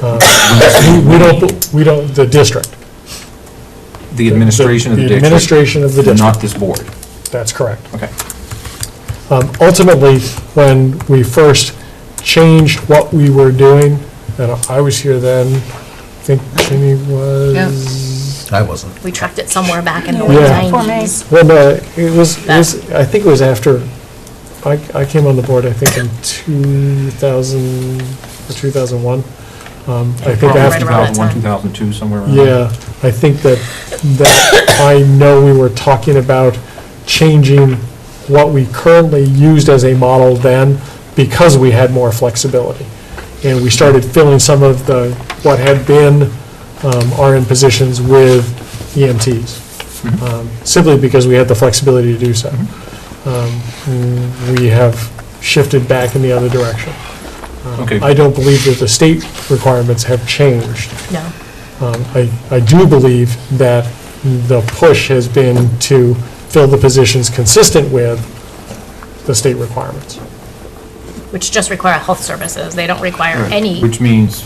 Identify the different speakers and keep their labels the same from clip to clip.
Speaker 1: Uh, we- We don't, we don't, the district.
Speaker 2: The administration of the district?
Speaker 1: administration of the district.
Speaker 2: Not this board?
Speaker 1: That's correct.
Speaker 2: Okay.
Speaker 1: Um, Ultimately, when we first changed what we were doing, and I was here then, I think Ginny was,
Speaker 3: I wasn't.
Speaker 4: We tracked it somewhere back in the
Speaker 1: Yeah.
Speaker 4: late
Speaker 5: Form A.
Speaker 4: 90s.
Speaker 1: well, no, it was, it was- I think it was after, I I came on the board, I think in 2000, or 2001. Um, I think
Speaker 2: Probably
Speaker 4: right
Speaker 1: after,
Speaker 4: around that
Speaker 2: 2001,
Speaker 4: time.
Speaker 2: 2002, somewhere around there.
Speaker 1: yeah, I think that, that I know we were talking about changing what we currently used as a model then because we had more flexibility. And we started filling some of the, what had been um, RN positions with EMTs, um, simply because we had the flexibility to do so. Um, We have shifted back in the other direction. Um,
Speaker 2: Okay.
Speaker 1: I don't believe that the state requirements have changed.
Speaker 4: No.
Speaker 1: Um, I, I do believe that the push has been to fill the positions consistent with the state requirements.
Speaker 4: Which just require health services. They don't require any.
Speaker 2: Which means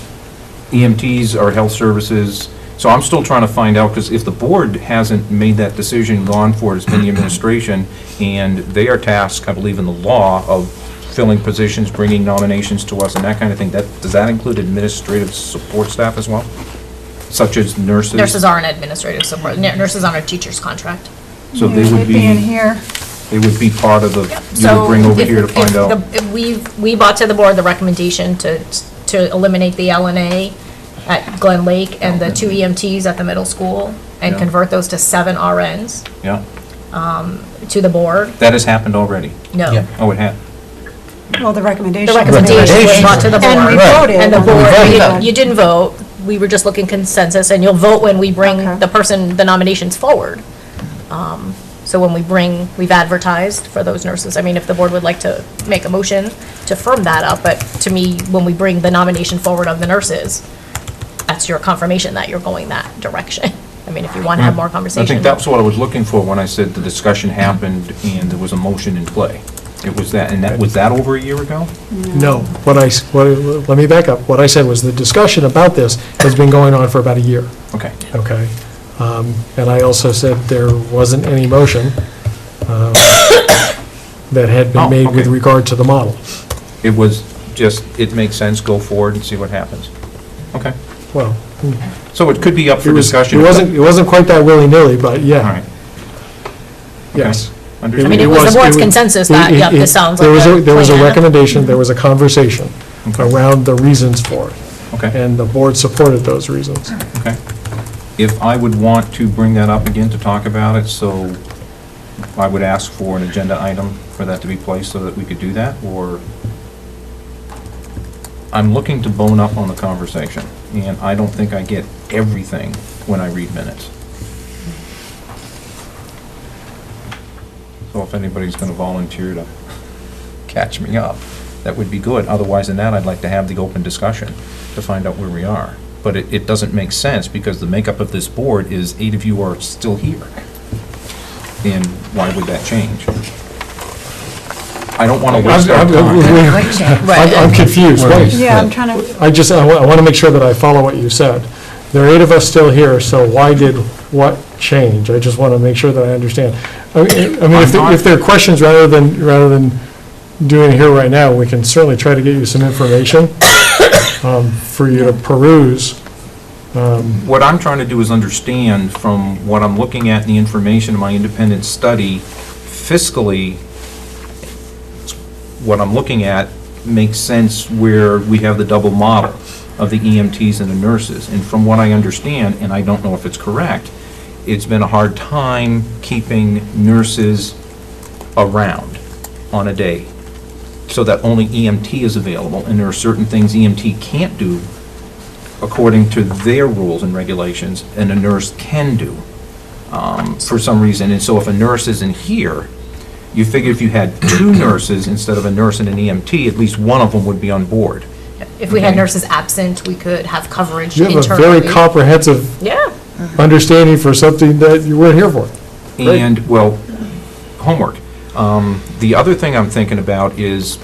Speaker 2: EMTs are health services, so I'm still trying to find out, because if the board hasn't made that decision, gone for it, it's been the administration, and they are tasked, I believe in the law, of filling positions, bringing nominations to us and that kind of thing, that, does that include administrative support staff as well? Such as nurses?
Speaker 4: Nurses aren't administrative support. n- Nurses on a teacher's contract.
Speaker 2: So
Speaker 5: Yeah,
Speaker 2: they would
Speaker 5: they'd be in
Speaker 2: be,
Speaker 5: here.
Speaker 2: they would be part of the, you
Speaker 4: So
Speaker 2: would bring over
Speaker 4: if-
Speaker 2: here to
Speaker 4: if
Speaker 2: find
Speaker 4: the-
Speaker 2: out.
Speaker 4: if We, we brought to the board the recommendation to, to eliminate the LNA at Glen Lake and the two EMTs at the middle school and
Speaker 2: Yeah.
Speaker 4: convert those to seven RNs
Speaker 2: Yeah,
Speaker 4: to the board.
Speaker 2: that has happened already.
Speaker 3: Yeah.
Speaker 4: No.
Speaker 2: Oh, it had.
Speaker 5: Well, the recommendation.
Speaker 4: The recommendation was brought to the board.
Speaker 5: And we
Speaker 3: Right.
Speaker 5: voted.
Speaker 4: And the
Speaker 3: We
Speaker 4: board,
Speaker 3: voted.
Speaker 4: you didn't- you didn't vote, we were just looking consensus, and you'll vote when we
Speaker 5: Okay.
Speaker 4: bring the person, the nominations forward. Um, So when we bring, we've advertised for those nurses, I mean, if the board would like to make a motion to firm that up, but to me, when we bring the nomination forward of the nurses, that's your confirmation that you're going that direction. I mean, if you want to have
Speaker 1: Mm.
Speaker 4: more conversation.
Speaker 2: I think that's what I was looking for when I said the discussion happened and there was a motion in play. It was that, and that, was that over a year ago?
Speaker 1: No, what I, s- what, I- let me back up. What I said was the discussion about this has been going on for about a year,
Speaker 2: Okay.
Speaker 1: okay? Um, And I also said there wasn't any motion um, that had
Speaker 2: Oh,
Speaker 1: been made with
Speaker 2: okay.
Speaker 1: regard to the model.
Speaker 2: It was just, it makes sense, go forward and see what happens. Okay.
Speaker 1: Well,
Speaker 2: So it could be up
Speaker 1: it
Speaker 2: for
Speaker 1: was,
Speaker 2: discussion.
Speaker 1: it wasn't, it wasn't quite that willy-nilly, but
Speaker 2: All
Speaker 1: yeah,
Speaker 2: right. okay.
Speaker 1: yes.
Speaker 4: I mean,
Speaker 2: Understood.
Speaker 4: it was the board's
Speaker 1: it was-
Speaker 4: consensus that,
Speaker 1: it-
Speaker 4: yep,
Speaker 1: it-
Speaker 4: this sounds
Speaker 1: there
Speaker 4: like
Speaker 1: was
Speaker 4: a
Speaker 1: There was a
Speaker 4: plan.
Speaker 1: recommendation, there was a conversation
Speaker 2: Okay.
Speaker 1: around the reasons for it,
Speaker 2: Okay,
Speaker 1: and the board supported those reasons.
Speaker 2: okay. If I would want to bring that up again to talk about it, so I would ask for an agenda item for that to be placed so that we could do that, or? I'm looking to bone up on the conversation, and I don't think I get everything when I read minutes. So if anybody's going to volunteer to catch me up, that would be good. Otherwise than that, I'd like to have the open discussion to find out where we are. But it, it doesn't make sense because the makeup of this board is eight of you are still here. And why would that change? I don't want to waste our
Speaker 1: I'm- I'm-
Speaker 2: time.
Speaker 1: I'm I'm confused, wait.
Speaker 5: Yeah, I'm trying to,
Speaker 1: I just, I want to make sure that I follow what you said. There are eight of us still here, so why did what change? I just want to make sure that I understand. I mean, I mean, if there- if there are questions, rather than, rather than doing it here right now, we can certainly try to get you some information um, for you to peruse.
Speaker 2: What I'm trying to do is understand from what I'm looking at in the information in my independent study fiscally, what I'm looking at makes sense where we have the double model of the EMTs and the nurses. And from what I understand, and I don't know if it's correct, it's been a hard time keeping nurses around on a day so that only EMT is available. And there are certain things EMT can't do according to their rules and regulations, and a nurse can do um, for some reason. And so if a nurse isn't here, you figure if you had two nurses instead of a nurse and an EMT, at least one of them would be on board.
Speaker 4: If we had
Speaker 2: Okay.
Speaker 4: nurses absent, we could have coverage
Speaker 1: You
Speaker 4: internally.
Speaker 1: have a very comprehensive
Speaker 4: Yeah.
Speaker 1: understanding for something that you weren't here for. Great.
Speaker 2: And, well, homework. Um, The other thing I'm thinking E about is,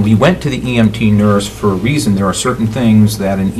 Speaker 2: we went to the EMT nurse for a reason. There are certain things that an